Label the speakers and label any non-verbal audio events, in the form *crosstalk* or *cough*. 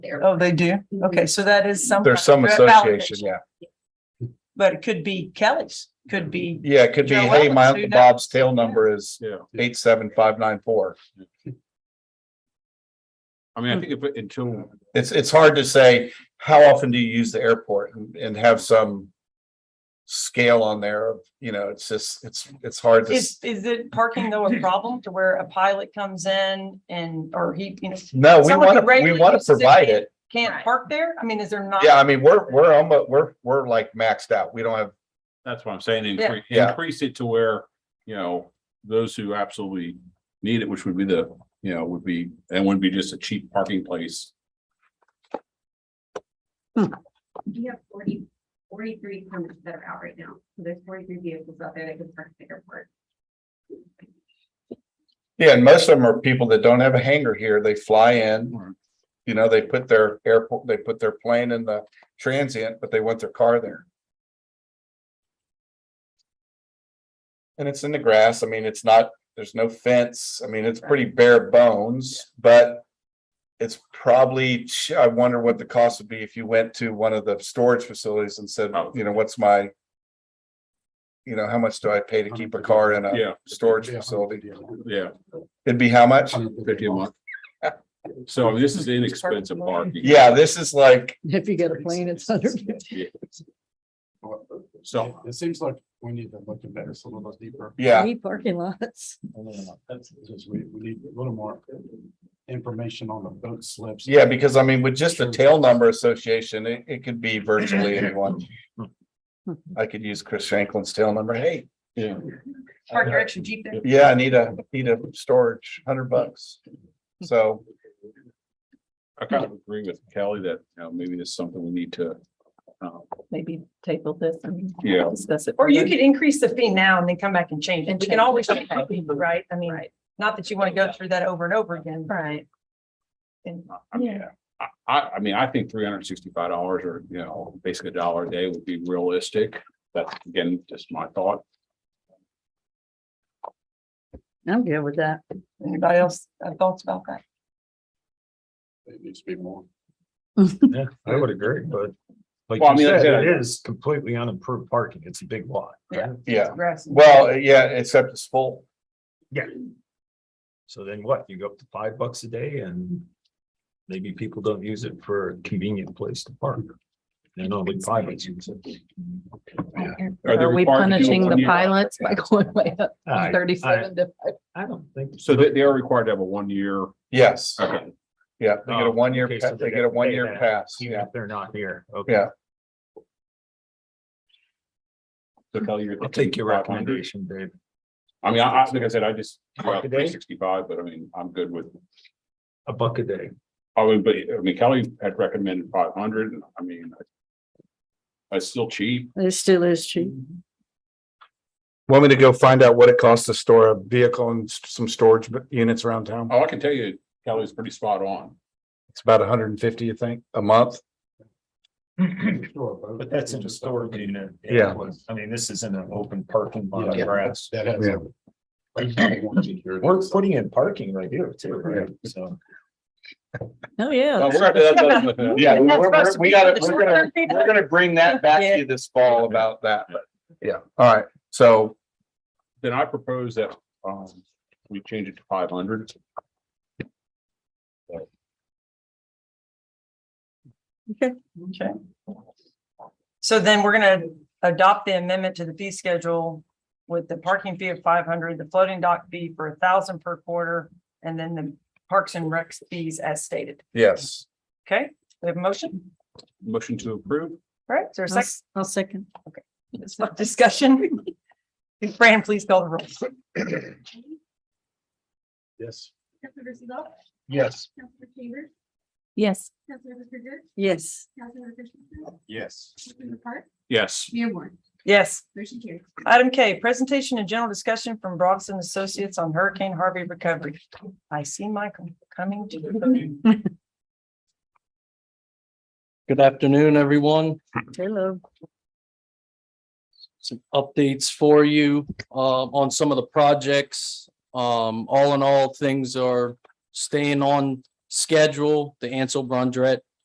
Speaker 1: there.
Speaker 2: Oh, they do? Okay, so that is some.
Speaker 3: There's some
Speaker 2: kind of validation,
Speaker 3: association, yeah.
Speaker 2: But it could be Kelly's, could be,
Speaker 3: Yeah, it could be,
Speaker 2: Joe
Speaker 3: hey, my
Speaker 2: Wellens,
Speaker 3: Uncle
Speaker 2: who knows?
Speaker 3: Bob's tail number is
Speaker 4: Yeah,
Speaker 3: eight, seven, five, nine, four.
Speaker 4: I
Speaker 5: Hmm.
Speaker 4: mean, I think if, it- until,
Speaker 3: It's, it's hard to say, how often do you use the airport and, and have some scale on there of, you know, it's just, it's, it's hard to,
Speaker 2: is,
Speaker 3: s-
Speaker 2: is it parking though a problem to where a pilot comes in and, or he, you know,
Speaker 3: no, we
Speaker 2: someone who
Speaker 3: want to, we
Speaker 2: regularly
Speaker 3: want to
Speaker 2: uses it
Speaker 3: provide
Speaker 2: can't-
Speaker 3: it.
Speaker 2: can't
Speaker 1: Right.
Speaker 2: park there? I mean, is there not?
Speaker 3: Yeah, I mean, we're, we're almost, we're, we're like maxed out. We don't have,
Speaker 4: that's what I'm saying, increase,
Speaker 3: Yeah.
Speaker 4: increase it to where, you know, those who absolutely need it, which would be the, you know, would be, and wouldn't be just a cheap parking place.
Speaker 1: We have 40 43 permits that are out right now. So There's forty-three vehicles out there that can park at the airport.
Speaker 3: yeah, and most of them are people that don't have a hangar here. They fly in.
Speaker 4: Right.
Speaker 3: You know, they put their airport, they put their plane in the transient, but they want their car there. And it's in the grass. I mean, it's not, there's no fence. I mean, it's pretty bare bones, but it's probably, I wonder what the cost would be if you went to one of the storage facilities and said,
Speaker 4: Oh.
Speaker 3: you know, what's my you know, how much do I pay to keep a car in a
Speaker 4: Yeah,
Speaker 3: storage facility?
Speaker 4: yeah,
Speaker 3: It'd be how much?
Speaker 4: fifty a month. So I mean, this is inexpensive parking.
Speaker 3: Yeah, this is like,
Speaker 5: If you get a plane, it's under fifty.
Speaker 4: So-
Speaker 6: It seems like we need to look at better, some of those deeper.
Speaker 3: yeah,
Speaker 5: Need parking lots.
Speaker 6: I don't know, That's just, we, we need a little more information on the boat slips.
Speaker 3: yeah, because I mean, with just the tail number association, it, it could be virtually anyone. I could use Chris Shanklin's tail number. Hey,
Speaker 4: Yeah.
Speaker 2: Park your extra Jeep there?
Speaker 3: yeah, I need a, need a storage, hundred bucks. So,
Speaker 4: I kind of agree with Kelly that, you know, maybe there's something we need to, um,
Speaker 5: Maybe table this and
Speaker 4: Yeah.
Speaker 5: discuss it.
Speaker 2: Or you could increase the fee now and then come back and change it.
Speaker 5: And
Speaker 2: We
Speaker 5: change
Speaker 2: can always
Speaker 5: it.
Speaker 2: change it, right? I mean, not that you want to go through that over and over again.
Speaker 5: Right.
Speaker 2: And
Speaker 4: I mean, I, I, I mean, I think three hundred and sixty-five dollars or, you know, basically a dollar a day would be realistic. That's again, just my thought.
Speaker 5: *laughs* I'm good with that.
Speaker 2: anybody else have thoughts about that?
Speaker 6: It needs to be more.
Speaker 7: Yeah, I would agree, but like
Speaker 4: Well, I
Speaker 7: you
Speaker 4: mean, like I
Speaker 7: said,
Speaker 4: said,
Speaker 7: it is completely unimproved parking. It's a big lot. right?
Speaker 3: yeah,
Speaker 2: Grass.
Speaker 3: well, yeah, except it's full.
Speaker 7: So then what? You go up to five bucks a day and maybe people don't use it for a convenient place to park. And only pilots use it.
Speaker 4: Are they
Speaker 5: Are we
Speaker 4: required to do it
Speaker 5: punishing
Speaker 4: one
Speaker 5: the
Speaker 4: year?
Speaker 5: pilots by going way up
Speaker 7: I,
Speaker 5: thirty-seven to?
Speaker 7: I don't think.
Speaker 4: So they, they are required to have a one-year.
Speaker 3: Yes,
Speaker 4: Okay.
Speaker 3: yeah, they get a
Speaker 7: Oh,
Speaker 3: one-year,
Speaker 7: okay,
Speaker 3: pa-
Speaker 7: so they
Speaker 3: they get
Speaker 7: gotta
Speaker 3: a
Speaker 7: pay
Speaker 3: one-year
Speaker 7: that.
Speaker 3: pass,
Speaker 7: Even
Speaker 3: yeah.
Speaker 7: if they're not here. Okay.
Speaker 3: Yeah.
Speaker 4: So Kelly, you're
Speaker 7: I'll take your
Speaker 4: 500.
Speaker 7: recommendation, Dave.
Speaker 4: I mean, I, I, like I said, I just,
Speaker 7: Buck a day?
Speaker 4: three sixty-five, but I mean, I'm good with,
Speaker 7: A buck a *clears throat* day.
Speaker 4: I would, but, I mean, Kelly had recommended five hundred, and I mean, I- it's still cheap.
Speaker 5: It still is cheap.
Speaker 3: Want me to go find out what it costs to store a vehicle and s- some storage b- units around town?
Speaker 4: Oh, I can tell you, Kelly's pretty spot
Speaker 7: *laughs*
Speaker 4: on.
Speaker 3: It's about hundred and fifty, you think, a month?
Speaker 7: But that's in a storage unit.
Speaker 3: Yeah.
Speaker 7: I mean, this isn't an open parking lot
Speaker 6: Yeah.
Speaker 7: of grass.
Speaker 6: That has.
Speaker 3: Yeah.
Speaker 7: We're
Speaker 6: a-
Speaker 7: putting in parking right here too, right? So.
Speaker 5: Oh, yeah.
Speaker 4: No, we're- that- that-
Speaker 7: *laughs*
Speaker 4: that-
Speaker 3: Yeah,
Speaker 2: And
Speaker 3: we're,
Speaker 2: that's
Speaker 3: we're,
Speaker 2: supposed to
Speaker 3: we
Speaker 2: be
Speaker 3: gotta,
Speaker 2: the
Speaker 3: we're gonna,
Speaker 2: short-term people.
Speaker 3: we're gonna bring that back to you this fall about that, but, yeah, all right, so,
Speaker 4: Then I propose that, um, we change it to five hundred.
Speaker 2: Okay. So then we're gonna adopt the amendment to the fee schedule with the parking fee of five hundred, the floating dock fee for a thousand per quarter, and then the parks and recs fees as stated.
Speaker 3: yes.
Speaker 2: Okay, we have a motion,
Speaker 4: Motion to approve?
Speaker 2: All right? Is there a
Speaker 5: I'll
Speaker 2: second
Speaker 5: s- I'll second.
Speaker 2: discussion? Fran, please call the roll.
Speaker 6: Yes.
Speaker 1: Councilmember Seagull,
Speaker 6: Yes.
Speaker 1: Councilmember Chambers,
Speaker 5: Yes.
Speaker 1: Councilmember Bridger,
Speaker 5: Yes.
Speaker 1: Councilmember Christensen,
Speaker 6: Yes.
Speaker 1: Councilmember Park,
Speaker 4: Yes.
Speaker 1: Mayor Warren,
Speaker 2: Yes.
Speaker 1: motion carries.
Speaker 2: Item K, presentation and general discussion from Bronson Associates on Hurricane Harvey recovery. I see Michael coming to the podium.
Speaker 8: Good afternoon, everyone.
Speaker 5: Hello.
Speaker 8: Some updates for you um, on some of the projects. Um, All in all, things are staying on schedule. The Ansel Brundrett